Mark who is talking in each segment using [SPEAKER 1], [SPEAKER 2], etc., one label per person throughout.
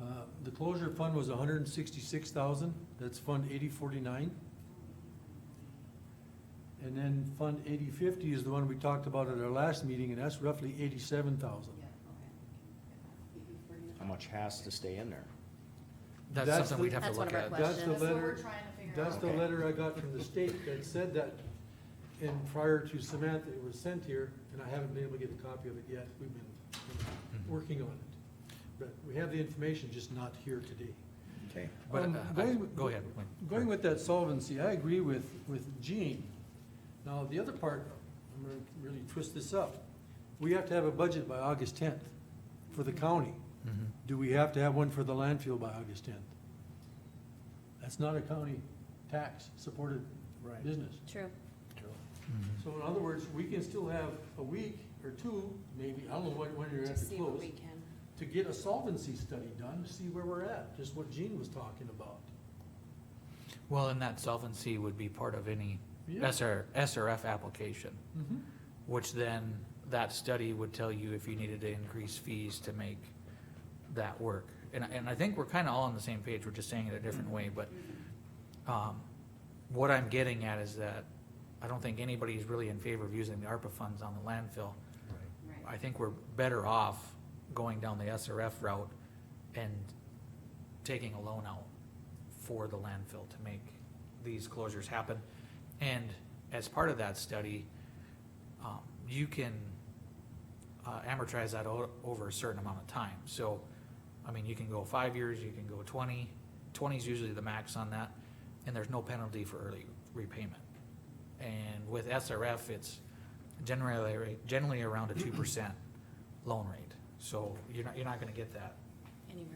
[SPEAKER 1] Uh, closure fund was a hundred and sixty-six thousand, that's Fund eighty forty-nine. And then Fund eighty fifty is the one we talked about at our last meeting, and that's roughly eighty-seven thousand.
[SPEAKER 2] How much has to stay in there?
[SPEAKER 3] That's
[SPEAKER 1] That's
[SPEAKER 3] something
[SPEAKER 1] the-
[SPEAKER 3] we'd have to
[SPEAKER 4] That's one
[SPEAKER 3] look
[SPEAKER 4] of our
[SPEAKER 3] at.
[SPEAKER 1] That's the
[SPEAKER 4] Questions?
[SPEAKER 1] letter.
[SPEAKER 4] That's what we're trying to figure
[SPEAKER 1] That's
[SPEAKER 4] out.
[SPEAKER 1] the
[SPEAKER 2] Okay.
[SPEAKER 1] letter I got from the state that said that, and prior to Samantha, it was sent here, and I haven't been able to get a copy of it yet, we've been
[SPEAKER 3] Mm-hmm.
[SPEAKER 1] working on it. But we have the information, just not here today.
[SPEAKER 2] Okay.
[SPEAKER 3] But,
[SPEAKER 1] Um,
[SPEAKER 3] uh, I-
[SPEAKER 1] going-
[SPEAKER 3] go ahead.
[SPEAKER 1] Going with that solvency, I agree with, with Gene. Now, the other part, I'm gonna really twist this up. We have to have a budget by August tenth for the county.
[SPEAKER 3] Mhm.
[SPEAKER 1] Do we have to have one for the landfill by August tenth? That's not a county tax-supported
[SPEAKER 5] Right.
[SPEAKER 1] business.
[SPEAKER 4] True.
[SPEAKER 3] Mhm.
[SPEAKER 1] So in other words, we can still have a week or two, maybe, I don't know when, when you're
[SPEAKER 4] To
[SPEAKER 1] at the
[SPEAKER 4] see what
[SPEAKER 1] close,
[SPEAKER 4] we can.
[SPEAKER 1] to get a solvency study done, to see where we're at, just what Gene was talking about.
[SPEAKER 3] Well, and that solvency would be part of any
[SPEAKER 1] Yeah.
[SPEAKER 3] SR, SRF application,
[SPEAKER 1] Mhm.
[SPEAKER 3] which then that study would tell you if you needed to increase fees to make that work. And, I- and I think we're kind of all on the same page. We're just saying it a different way, but, um, what I'm getting at is that I don't think anybody's really in favor of using the ARPA funds on the landfill.
[SPEAKER 4] Right.
[SPEAKER 3] I think we're better off going down the SRF route and taking a loan out for the landfill to make these closures happen. And as part of that study, um, you can, uh, amortize that o- over a certain amount of time. So, I mean, you can go five years, you can go twenty. 20 is usually the max on that, and there's no penalty for early repayment. And with SRF, it's generally, generally around a two percent loan rate. So you're not, you're not gonna get that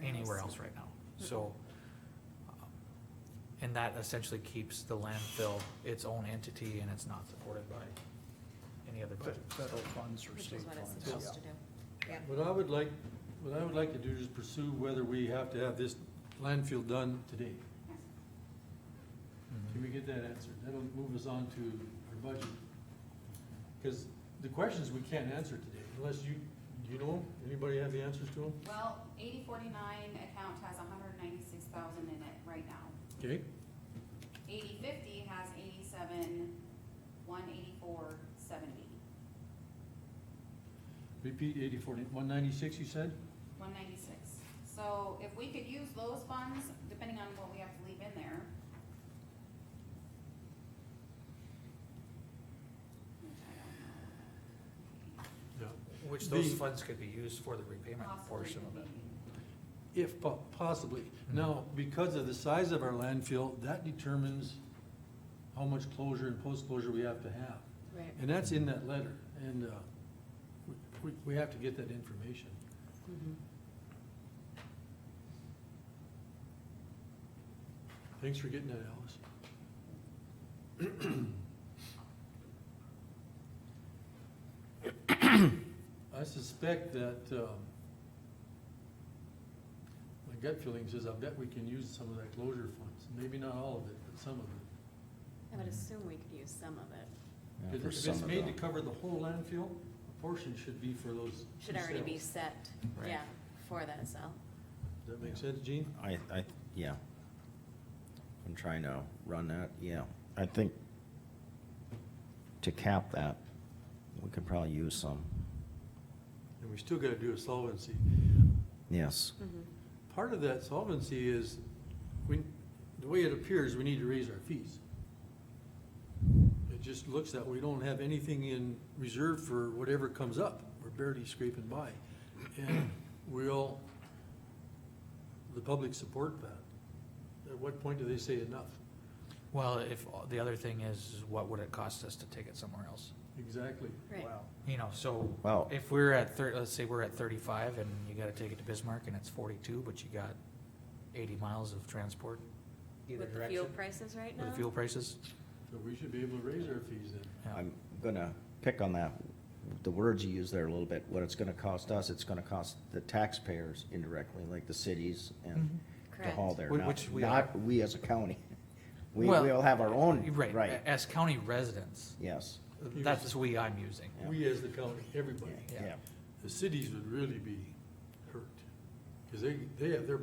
[SPEAKER 3] anywhere else right now, so. um, And that essentially keeps the landfill its own entity and it's not supported by any other budget.
[SPEAKER 5] Federal funds or
[SPEAKER 4] Which
[SPEAKER 5] state
[SPEAKER 4] is what it's
[SPEAKER 5] funds.
[SPEAKER 4] supposed to do. Yep.
[SPEAKER 1] What I would like, what I would like to do is pursue whether we have to have this landfill done today.
[SPEAKER 3] Mm-hmm.
[SPEAKER 1] Can we get that answered? That'll move us on to our budget. Because the questions we can't answer today, unless you, do you know, anybody have the answers to them?
[SPEAKER 6] Well, eighty forty-nine account has hundred ninety-six thousand in it right now.
[SPEAKER 1] Okay.
[SPEAKER 6] Eighty fifty has eighty-seven, one eighty-four, seventy.
[SPEAKER 1] Repeat eighty forty, one ninety-six you said?
[SPEAKER 6] One ninety-six. So if we could use those funds, depending on what we have to leave in there. Which I don't know.
[SPEAKER 1] Yeah.
[SPEAKER 3] Which those
[SPEAKER 1] The-
[SPEAKER 3] funds could be used for the repayment
[SPEAKER 6] Possibly
[SPEAKER 3] portion of it.
[SPEAKER 6] maybe.
[SPEAKER 1] If po- possibly. Now, because of the size of our landfill, that determines how much closure and post-closure we have to have.
[SPEAKER 4] Right.
[SPEAKER 1] And that's in that letter, and uh, we- we, we have to get that information.
[SPEAKER 4] Mhm.
[SPEAKER 1] Thanks for getting that, Alice. I suspect that, um, my gut feeling says I bet we can use some of that closure funds, maybe not all of it, but some of it.
[SPEAKER 4] I would assume we could use some of it.
[SPEAKER 2] Yeah,
[SPEAKER 1] If
[SPEAKER 2] for
[SPEAKER 1] it's- if
[SPEAKER 2] some
[SPEAKER 1] it's
[SPEAKER 2] of
[SPEAKER 1] made to
[SPEAKER 2] them.
[SPEAKER 1] cover the whole landfill, a portion should be for those two
[SPEAKER 4] Should already be
[SPEAKER 1] sales.
[SPEAKER 4] set,
[SPEAKER 3] Right.
[SPEAKER 4] yeah, for that cell.
[SPEAKER 1] Does that make sense, Gene?
[SPEAKER 2] I, I, yeah. I'm trying to run that, yeah. I think to cap that, we could probably use some,
[SPEAKER 1] And we still gotta do a solvency.
[SPEAKER 2] yes.
[SPEAKER 4] Mm-hmm.
[SPEAKER 1] Part of that solvency is, we, the way it appears, we need to raise our fees. It just looks that we don't have anything in reserve for whatever comes up. We're barely scraping by. And will the public support that? At what point do they say enough?
[SPEAKER 3] Well, if, the other thing is, what would it cost us to take it somewhere else?
[SPEAKER 1] Exactly.
[SPEAKER 4] Right.
[SPEAKER 5] Wow.
[SPEAKER 3] You know, so
[SPEAKER 2] Well-
[SPEAKER 3] if we're at thir let's say we're at thirty-five and you gotta take it to Bismarck and it's forty-two, but you got eighty miles of transport either
[SPEAKER 4] With the fuel
[SPEAKER 3] direction.
[SPEAKER 4] prices right now?
[SPEAKER 3] With the fuel prices.
[SPEAKER 1] So we should be able to raise our fees then.
[SPEAKER 3] yeah.
[SPEAKER 2] I'm gonna pick on that, the words you use there a little bit, what it's gonna cost us, it's gonna cost the taxpayers indirectly, like the cities and to haul
[SPEAKER 4] Correct.
[SPEAKER 2] there,
[SPEAKER 3] Whi-
[SPEAKER 2] not,
[SPEAKER 3] which we are.
[SPEAKER 2] not we as a county. We,
[SPEAKER 3] Well,
[SPEAKER 2] we all have our own,
[SPEAKER 3] Right,
[SPEAKER 2] right,
[SPEAKER 3] as county residents,
[SPEAKER 2] yes,
[SPEAKER 3] that's we I'm using.
[SPEAKER 2] Yeah.
[SPEAKER 1] We as the county, everybody.
[SPEAKER 3] Yeah.
[SPEAKER 2] yeah.
[SPEAKER 1] The cities would really be hurt, because they, they have their